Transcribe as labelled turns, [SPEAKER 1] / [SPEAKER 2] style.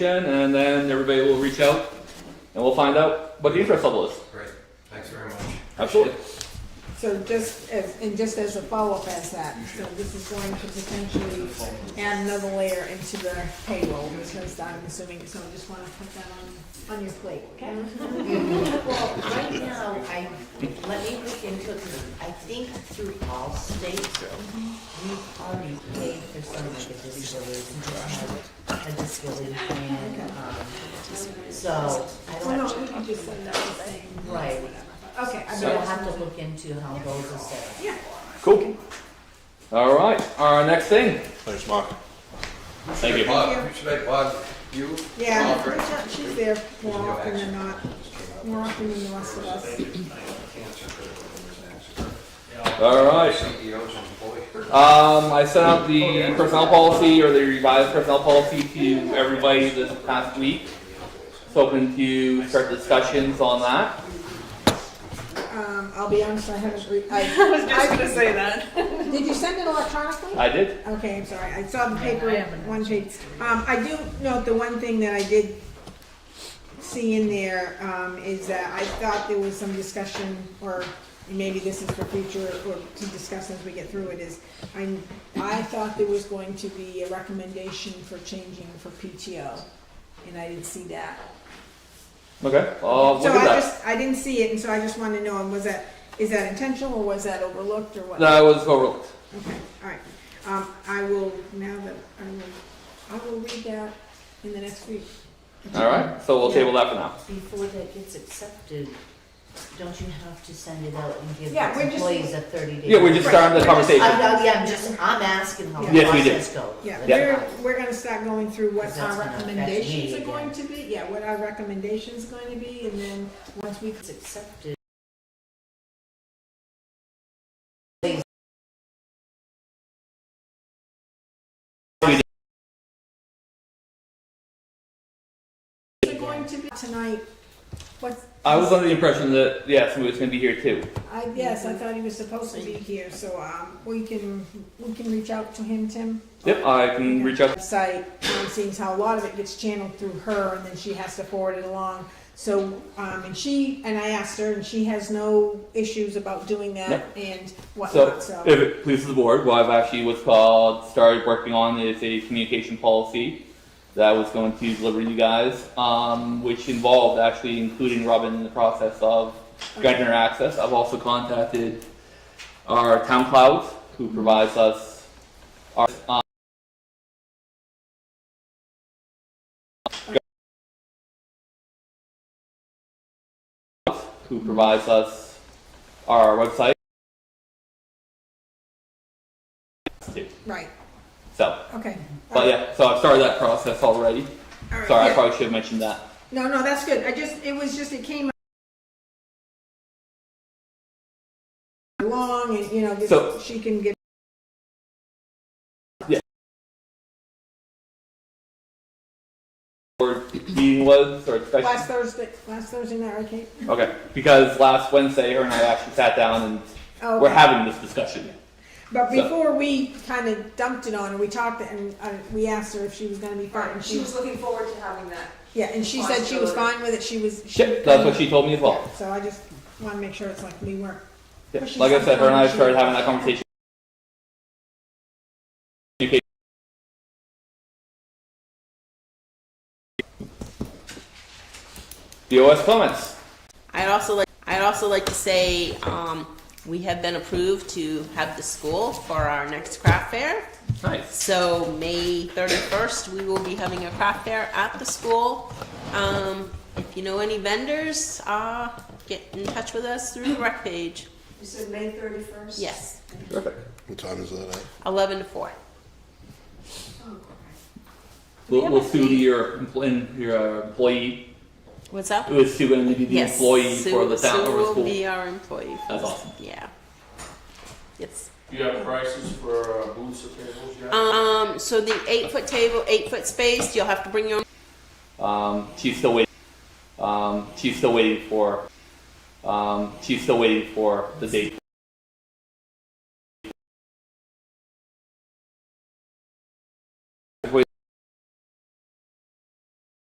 [SPEAKER 1] again, and then everybody will reach out and we'll find out what the interest level is.
[SPEAKER 2] Great, thanks very much.
[SPEAKER 1] Absolutely.
[SPEAKER 3] So just as, and just as a follow-up as that, so this is going to potentially add another layer into the payroll, because I'm assuming, so I just wanna put that on, on your plate, okay?
[SPEAKER 4] Well, right now, I, let me look into it, 'cause I think through all states, we've already paid for some like a disability, uh, a disability plan, um, so, I
[SPEAKER 3] Well,
[SPEAKER 4] don't,
[SPEAKER 3] no, we can just send out the same,
[SPEAKER 4] right,
[SPEAKER 3] okay, I
[SPEAKER 4] so I'll
[SPEAKER 3] better,
[SPEAKER 4] have to look into how those are set.
[SPEAKER 3] yeah.
[SPEAKER 1] Cool. All right. Our next thing.
[SPEAKER 5] Thanks, Mark.
[SPEAKER 1] Thank you.
[SPEAKER 2] Bob, Who should I bug? You?
[SPEAKER 3] Yeah,
[SPEAKER 2] Alfred?
[SPEAKER 3] she's- she's there more
[SPEAKER 2] Your
[SPEAKER 3] often than
[SPEAKER 2] action.
[SPEAKER 3] not, more often than the rest of us.
[SPEAKER 2] Cancer critical illness
[SPEAKER 1] All
[SPEAKER 2] and
[SPEAKER 1] right.
[SPEAKER 2] CEOs and employees.
[SPEAKER 1] Um, I sent out the personnel policy or the revised personnel policy to everybody this past week. It's open to start discussions on that.
[SPEAKER 3] Um, I'll be honest, I haven't re- I.
[SPEAKER 6] was just gonna say that.
[SPEAKER 3] Did you send it electronically?
[SPEAKER 1] I did.
[SPEAKER 3] Okay, I'm sorry, I saw the paper,
[SPEAKER 4] I haven't.
[SPEAKER 3] one page. Um, I do note the one thing that I did see in there, um, is that I thought there was some discussion, or maybe this is for future, or to discuss as we get through it, is I, I thought there was going to be a recommendation for changing for PTO, and I didn't see that.
[SPEAKER 1] Okay. Uh, look
[SPEAKER 3] So
[SPEAKER 1] at
[SPEAKER 3] I
[SPEAKER 1] that.
[SPEAKER 3] just, I didn't see it, and so I just wanted to know, was that, is that intentional, or was that overlooked, or what?
[SPEAKER 1] That was overlooked.
[SPEAKER 3] Okay, all right. Um, I will, now that, I will, I will read that in the next week.
[SPEAKER 1] All right. So we'll table that for now.
[SPEAKER 4] Before that gets accepted, don't you have to send it out and give
[SPEAKER 3] Yeah, we're
[SPEAKER 4] the
[SPEAKER 3] just-
[SPEAKER 4] employees a thirty day?
[SPEAKER 1] Yeah, we're just starting the conversation.
[SPEAKER 4] I, I- yeah, I'm just, I'm asking how the
[SPEAKER 1] Yes, we do.
[SPEAKER 4] process goes.
[SPEAKER 3] Yeah,
[SPEAKER 1] Yeah.
[SPEAKER 3] we're, we're gonna start going through what
[SPEAKER 4] Because
[SPEAKER 3] our
[SPEAKER 4] that's gonna affect me
[SPEAKER 3] recommendations are
[SPEAKER 4] again.
[SPEAKER 3] going to be, yeah, what our recommendations are going to be, and then, once we,
[SPEAKER 4] It's accepted.
[SPEAKER 3] are going to be tonight, what's,
[SPEAKER 1] I was under the impression that yes, we was going to be here too.
[SPEAKER 3] I, yes,
[SPEAKER 4] Mm-hmm.
[SPEAKER 3] I thought he was supposed to be here, so, um, we can, we can reach out to him, Tim?
[SPEAKER 1] Yep. I can reach out.
[SPEAKER 3] website, um, seems how a lot of it gets channeled through her and then she has to forward it along. So, um, and she, and I asked her and she has no issues about doing that and
[SPEAKER 1] So,
[SPEAKER 3] whatnot, so.
[SPEAKER 1] if it pleases the board, what I've actually what's called started working on is a communication policy that I was going to deliver to you guys, um, which involved actually including Robin in the process of granting her access. I've also contacted our town cloud, who provides us our. Um, who provides us our website.
[SPEAKER 3] Right,
[SPEAKER 1] So,
[SPEAKER 3] okay.
[SPEAKER 1] but yeah, so I've started that process already.
[SPEAKER 3] All right,
[SPEAKER 1] Sorry, I
[SPEAKER 3] yeah.
[SPEAKER 1] probably should have mentioned that.
[SPEAKER 3] No, no, that's good. I just, it was just, it came along and, you know,
[SPEAKER 1] So-
[SPEAKER 3] this- she can get.
[SPEAKER 1] Or meeting was, or
[SPEAKER 3] Last
[SPEAKER 1] special.
[SPEAKER 3] Thursday, last Thursday night, right, Kate?
[SPEAKER 1] Okay, because last Wednesday, her and I actually sat down and
[SPEAKER 3] Oh,
[SPEAKER 1] we're
[SPEAKER 3] okay.
[SPEAKER 1] having this discussion.
[SPEAKER 3] But
[SPEAKER 1] So-
[SPEAKER 3] before we kind of dumped it on her, we talked and uh, we asked her if she was going to be fine. and
[SPEAKER 6] She was looking forward to having that.
[SPEAKER 3] yeah, and she said she was fine with it. She was. She,
[SPEAKER 1] Shit, that's what she told me as well.
[SPEAKER 3] So I just want to make sure it's like we weren't.
[SPEAKER 1] Yeah,
[SPEAKER 3] But she's
[SPEAKER 1] Like I said, her and I
[SPEAKER 3] unconscious.
[SPEAKER 1] started having that conversation. Communication. The OS comments.
[SPEAKER 7] I'd also like, I'd also like to say, um, we have been approved to have the school for our next craft fair.
[SPEAKER 1] Nice.
[SPEAKER 7] So May thirty-first, we will be having a craft fair at the school. Um, if you know any vendors, uh, get in touch with us through the rec page.
[SPEAKER 6] You said May thirty-first?
[SPEAKER 7] Yes,
[SPEAKER 1] Perfect.
[SPEAKER 5] What time is that at?
[SPEAKER 7] eleven to four.
[SPEAKER 1] We'll,
[SPEAKER 7] Yeah,
[SPEAKER 1] we'll
[SPEAKER 7] but
[SPEAKER 1] sue
[SPEAKER 7] we-
[SPEAKER 1] your, empl- your uh, employee
[SPEAKER 7] What's up?
[SPEAKER 1] It was Sue going to be the
[SPEAKER 7] Yes,
[SPEAKER 1] employee
[SPEAKER 7] Sue-
[SPEAKER 1] for the town or
[SPEAKER 7] Sue
[SPEAKER 1] the
[SPEAKER 7] will
[SPEAKER 1] school.
[SPEAKER 7] be our employee. for
[SPEAKER 1] That's
[SPEAKER 7] the-
[SPEAKER 1] awesome.
[SPEAKER 7] Yeah. Yes.
[SPEAKER 8] You have prices for uh, booths and tables yet?
[SPEAKER 7] Um, so the eight-foot table, eight-foot space, you'll have to bring your own
[SPEAKER 1] Um, she's still waiting. Um, she's still waiting for. Um, she's still waiting for the date.